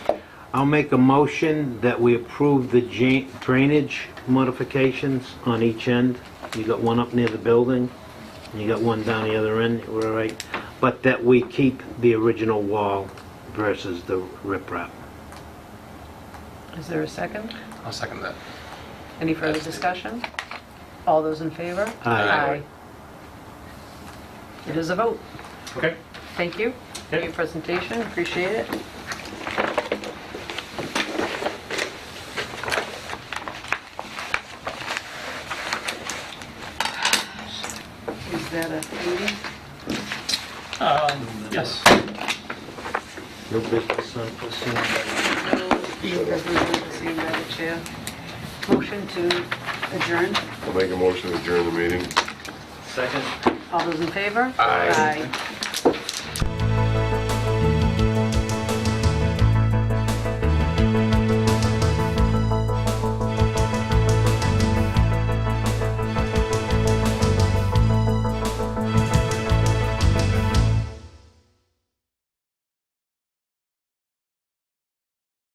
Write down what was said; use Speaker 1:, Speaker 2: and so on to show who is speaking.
Speaker 1: I'll make a motion that we approve the ja- drainage modifications on each end. You got one up near the building, and you got one down the other end, we're all right. But that we keep the original wall versus the riprap.
Speaker 2: Is there a second?
Speaker 3: I'll second that.
Speaker 2: Any further discussion? All those in favor?
Speaker 3: Aye.
Speaker 2: Aye. It is a vote.
Speaker 3: Okay.
Speaker 2: Thank you for
Speaker 3: Okay.
Speaker 2: your presentation, appreciate it. Is that a meeting?
Speaker 3: Um, yes.
Speaker 1: No business unforeseen.
Speaker 2: Because we want to see by the chair. Motion to adjourn.
Speaker 4: I'll make a motion to adjourn the meeting.
Speaker 2: All those in favor?
Speaker 4: Aye.
Speaker 2: Aye.